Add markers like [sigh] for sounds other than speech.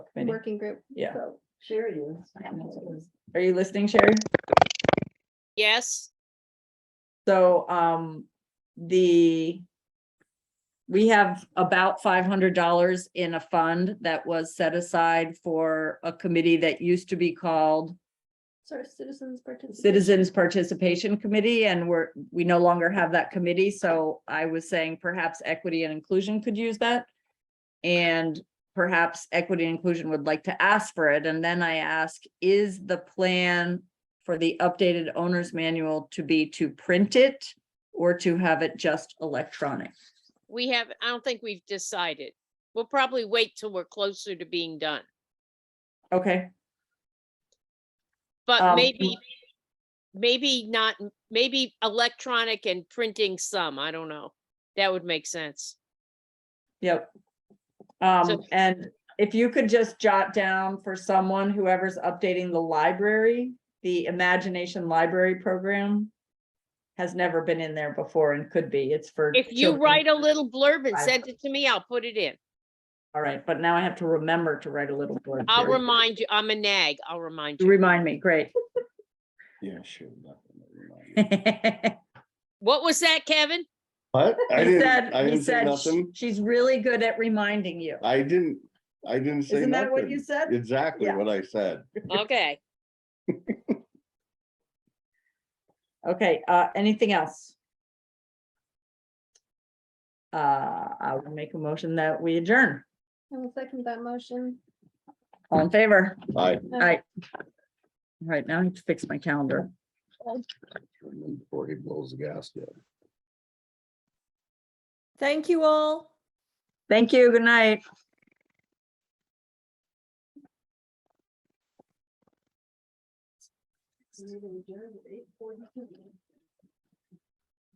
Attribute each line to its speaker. Speaker 1: committee.
Speaker 2: working group.
Speaker 1: Yeah.
Speaker 2: So,
Speaker 3: Sherry is.
Speaker 1: Are you listening, Sherry?
Speaker 4: Yes,
Speaker 1: So, um, the. We have about five hundred dollars in a fund that was set aside for a committee that used to be called.
Speaker 2: Sort of citizens participation.
Speaker 1: Citizens Participation Committee, and we're, we no longer have that committee, so I was saying perhaps equity and inclusion could use that. And perhaps equity and inclusion would like to ask for it, and then I ask, is the plan for the updated owner's manual to be to print it or to have it just electronic?
Speaker 4: we have, I don't think we've decided. We'll probably wait till we're closer to being done,
Speaker 1: Okay,
Speaker 4: but
Speaker 1: Um,
Speaker 4: maybe, maybe not, maybe electronic and printing some, I don't know. That would make sense.
Speaker 1: yep.
Speaker 4: So-
Speaker 1: Um, and if you could just jot down for someone, whoever's updating the library, the Imagination Library Program has never been in there before and could be. It's for.
Speaker 4: If you
Speaker 1: children.
Speaker 4: write a little blurb and
Speaker 1: Right.
Speaker 4: send it to me, I'll put it in.
Speaker 1: All right, but now I have to remember to write a little blurb.
Speaker 4: I'll
Speaker 1: Sherry.
Speaker 4: remind you, I'm a nag, I'll remind you.
Speaker 1: Remind me, great. [laughs]
Speaker 5: Yeah, sure. nothing, never mind.
Speaker 1: He
Speaker 4: What was
Speaker 1: [laughs]
Speaker 4: that, Kevin?
Speaker 5: [laughs] What? I didn't,
Speaker 1: said,
Speaker 5: I
Speaker 1: he
Speaker 5: didn't say
Speaker 1: said, "Sh-
Speaker 5: nothing.
Speaker 1: she's really good at reminding you.
Speaker 5: I didn't, I didn't say
Speaker 1: Isn't that what you
Speaker 5: nothing.
Speaker 1: said?
Speaker 5: Exactly
Speaker 1: Yeah.
Speaker 5: what I said.
Speaker 4: Okay,
Speaker 1: Okay, uh, anything else? Uh, I will make a motion that we adjourn.
Speaker 2: I will second that motion.
Speaker 1: All in favor?
Speaker 5: I.
Speaker 1: All right. All right, now I have to fix my calendar.
Speaker 5: Before he blows the gasket.
Speaker 6: Thank you all.
Speaker 1: Thank you. Good night.
Speaker 3: Eight forty-two.